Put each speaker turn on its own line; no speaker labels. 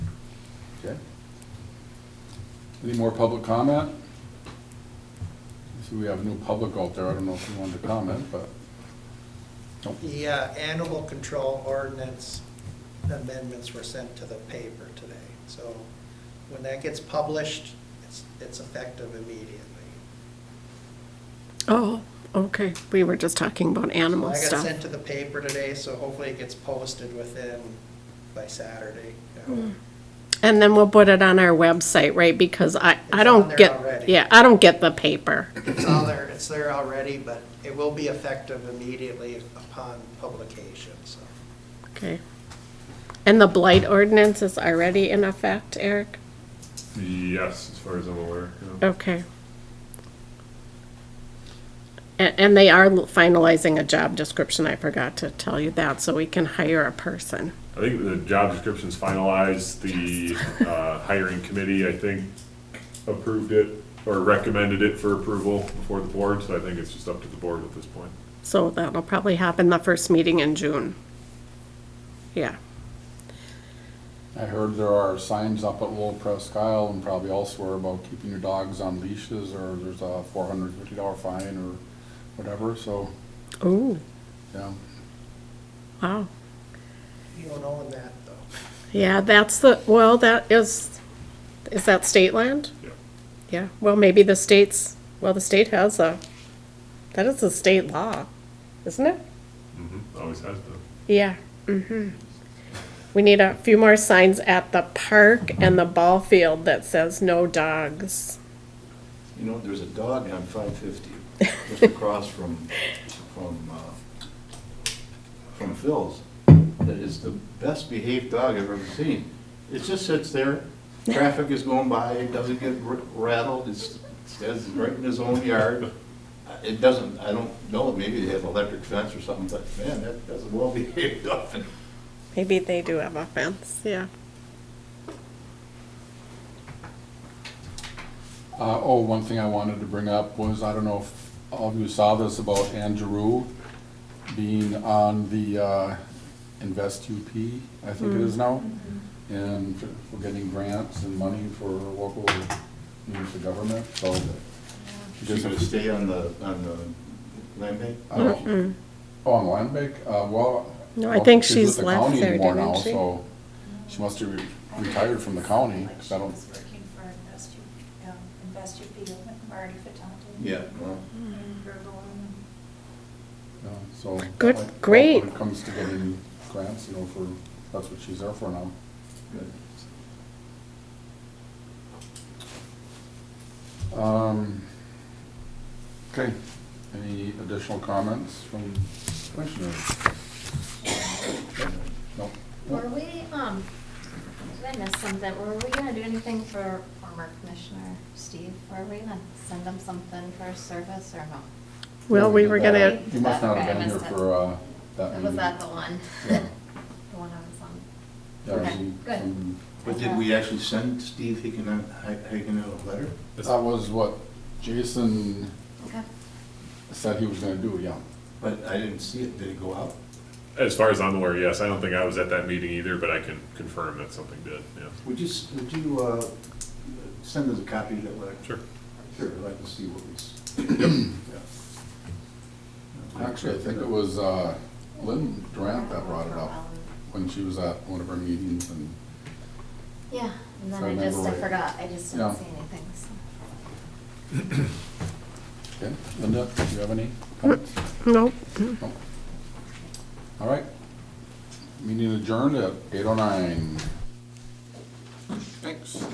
Okay. Any more public comment? I See, we have new public out there, I don't know if you wanted to comment, but, nope.
The uh, animal control ordinance amendments were sent to the paper today. So when that gets published, it's, it's effective immediately.
Oh, okay. We were just talking about
So
animal
I got sent
stuff.
to the paper today, so hopefully it gets posted within, by Saturday. you
Hmm.
know.
And then we'll put it on our website, right? Because I, I
It's on
don't
there
get,
already.
yeah, I don't get the paper.
It's all there, it's there already, but it will be effective immediately upon publication, so.
Okay. And the blight ordinance is already in effect, Eric?
Yes, as far as I'm aware. yeah.
Okay. And, and they are finalizing a job description. I forgot to tell you that, so we can hire a person.
I think the job description's finalized, the uh, hiring committee, I think, approved it or recommended it for approval before the board, so I think it's just up to the board at this point.
So that'll probably happen the first meeting in June. Yeah.
I heard there are signs up at Lowell Presque Isle and probably elsewhere about keeping your dogs on leashes, or there's a four hundred fifty dollar fine or whatever, so,
Ooh,
yeah.
wow.
You don't own that, though.
Yeah, that's the, well, that is, is that state land?
Yeah.
Yeah, well, maybe the state's, well, the state has a, that is a state law, isn't it?
Mhm, Always has been.
Yeah, mm-hmm. We need a few more signs at the park and the ball field that says no dogs.
You know, there's a dog on five fifty, just across from, from, uh, from Phil's, that is the best behaved dog I've ever seen. It just sits there, traffic is going by, it doesn't get r- rattled, it's, stands right in his own yard. Uh, It doesn't, I don't know, maybe they have electric fence or something, but man, that, that's a well-behaved dog.
Maybe they do have a fence, yeah.
Uh, oh, one thing I wanted to bring up was, I don't know if all of you saw this about Andrew being on the, uh, Invest UP, I think it is now, and for for getting grants and money for local, news to government, so.
She's gonna stay on the, on the land bank?
I don't- Oh, on Land Bank, uh, well.
No, I
well,
think
with
she's
the
left
county
there,
anymore
didn't
now,
she?
So she must have re- retired from the county, 'cause I
She
don't,
was working for Invest U- um, Invest UP, with Marty Fitante.
Yeah, well,
And Gergel and
yeah, so.
Good,
I- I hope
great.
When it comes to getting grants, you know, for, that's what she's there for now.
good.
Um, Okay, any additional comments from commissioners? No?
Were we, um, did I miss something? Were we gonna do anything for former Commissioner Steve? Were we gonna send him something for his service or no?
Well, we were gonna,
You Uh, must not have been here
Okay, I missed it.
for uh, that meeting.
Was that the one?
Yeah.
The one I was on?
Yeah,
Okay,
some-
good.
some-
But did we actually send Steve Hickman, Hickman a letter?
That was what Jason
Okay.
said he was gonna do, yeah.
But I didn't see it, did it go out?
As far as I'm aware, yes, I don't think I was at that meeting either, but I can confirm that something did, yeah.
Would you, s- would you, uh, send us a copy of that letter?
Sure.
Sure, I'd like to see what was. Yeah.
Actually, I think it was uh, Lynn Durant that brought it up when she was at one of our meetings and,
Yeah, and
So I
then I just, I
remember what-
forgot. I just didn't
Yeah.
see anything, so.
okay, Linda, do you have any comments?
nope.
No. All right. Meeting adjourned at eight oh nine. Thanks.